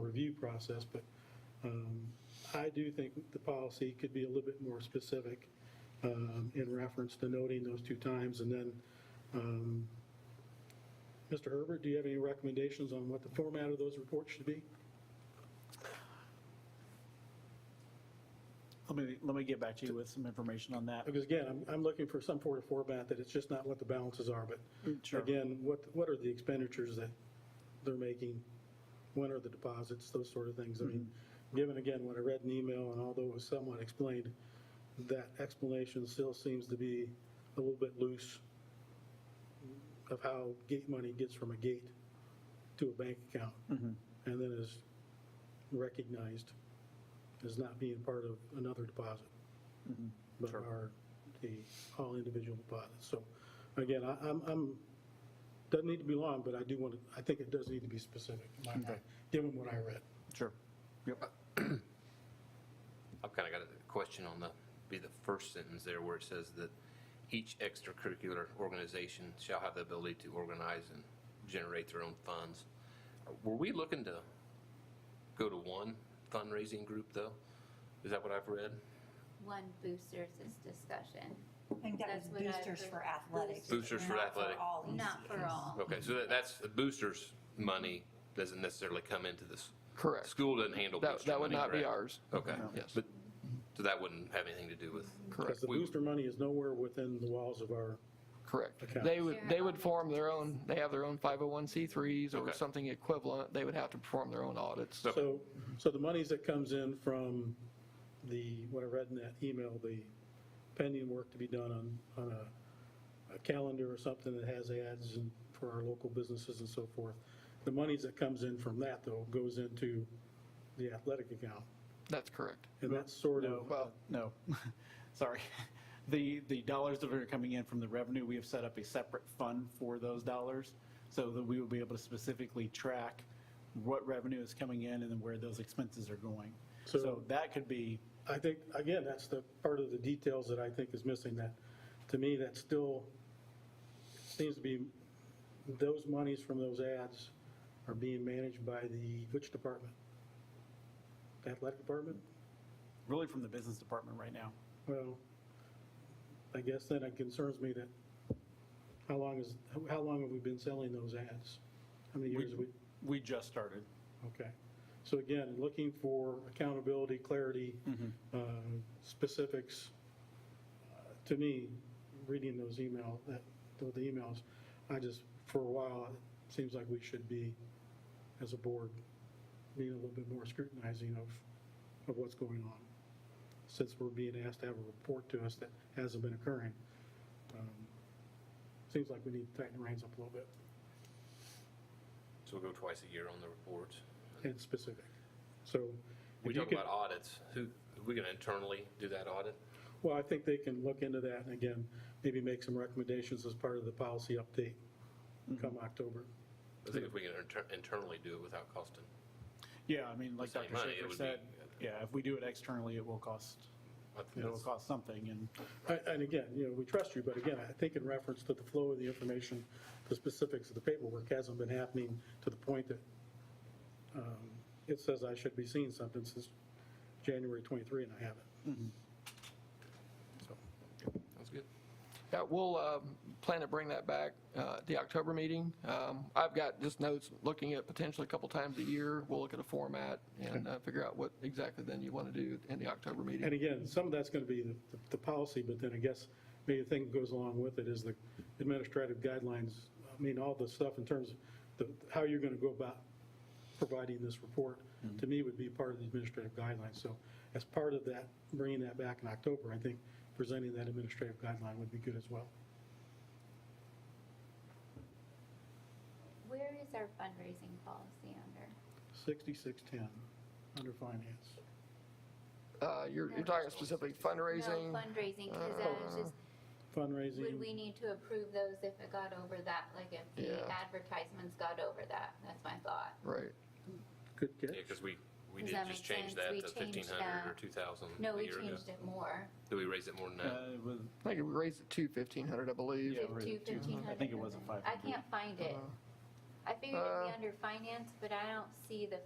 review process, but um, I do think the policy could be a little bit more specific um, in reference to noting those two times. And then, um, Mr. Herbert, do you have any recommendations on what the format of those reports should be? Let me, let me get back to you with some information on that. Because again, I'm, I'm looking for some sort of format that it's just not what the balances are, but Sure. again, what, what are the expenditures that they're making? When are the deposits, those sort of things? I mean, Mm-hmm. given again what I read in the email, and although it was somewhat explained, that explanation still seems to be a little bit loose of how gate money gets from a gate to a bank account, Mm-hmm. and then is recognized as not being part of another deposit but Mm-hmm. Sure. are the all individual deposits. So again, I- I'm, I'm, doesn't need to be long, but I do want to, I think it does need to be specific, in my mind, Okay. given what I read. Sure. Yep. I've kind of got a question on the, be the first sentence there where it says that each extracurricular organization shall have the ability to organize and generate their own funds. Were we looking to go to one fundraising group though? Is that what I've read? One boosters is discussion, I think that was That's what I boosters for heard. athletics. Boosters for not athletic. all not for ECs. all. Okay, so that- that's, boosters money doesn't necessarily come into this. Correct. School doesn't handle That- booster that would money, not be correct? ours. Oh, Okay. No. Yes. But, so that wouldn't have anything to do with. Because Correct, the We- booster money is nowhere within the walls of our, correct. Accounts. They would, they would form their own, they have their own 501c3s or Okay. something equivalent. They would have to perform their own audits. Okay. so, so the monies that comes in from the, what I read in that email, the pending work to be done on, on a, a calendar or something that has ads and for our local businesses and so forth. The monies that comes in from that though goes into the athletic account. That's correct. And that's sort No, of, well, no, sorry. The, the dollars that are coming in from the revenue, we have set up a separate fund for those dollars so that we will be able to specifically track what revenue is coming in and then where those expenses are going. So- So that could be, I think, again, that's the part of the details that I think is missing, that, to me, that still seems to be, those monies from those ads are being managed by the, which department? Athletic department? really from the business department right now. Well, I guess then it concerns me that, how long is, how long have we been selling those ads? How many years have we? We, we just started. Okay. So again, looking for accountability, clarity, Mm-hmm. uh, specifics. Uh, To me, reading those email, that, those emails, I just, for a while, it seems like we should be, as a board, being a little bit more scrutinizing of, of what's going on, since we're being asked to have a report to us that hasn't been occurring. Um, Seems like we need to tighten the reins up a little bit, So we go twice a year on the reports. and specific. So. if We you talk could- about audits. Who, are we going to internally do that audit? Well, I think they can look into that and again, maybe make some recommendations as part of the policy update come October. I think if we can inter- internally do it without costing. Yeah, I mean, like Same Dr. money, it Schaefer would said, be- yeah, if we do it externally, it will cost, I think it will that's- cost something and. I- And again, you know, we trust you, but again, I think in reference to the flow of the information, the specifics of the paperwork hasn't been happening to the point that um, it says I should be seeing something since January 23 and I haven't. So, That's good. Yeah, we'll um, plan to bring that back uh, at the October meeting. Um, I've got just notes, looking at potentially a couple times a year. We'll look at a format and uh, figure out what exactly then you want to do in the October meeting. And again, some of that's going to be the, the policy, but then I guess maybe the thing that goes along with it is the administrative guidelines. I mean, all the stuff in terms of the, how you're going to go about providing this report, to me, would be part of the administrative guidelines. So as part of that, bringing that back in October, I think presenting that administrative guideline would be good as well. Where is our fundraising policy under? 6610, under finance. Uh, You're you're talking specifically fundraising? No fundraising, because I was just, would we Fundraising, need to approve those if it got over that? Like if Yeah. the advertisements got over that, that's my thought. Right. good Yeah, catch. because we, we Does did that just make change sense? that We to changed 1,500 or that. 2,000 No, a we year ago. changed it more. Did we raise it more than that? Uh, with- I think we raised it to 1,500, I believe. Uh, Yeah, we're at Fifteen, fifteen hundred. I think it was a I 500. Uh-huh. can't find it. I figured it'd be under finance, but I don't see the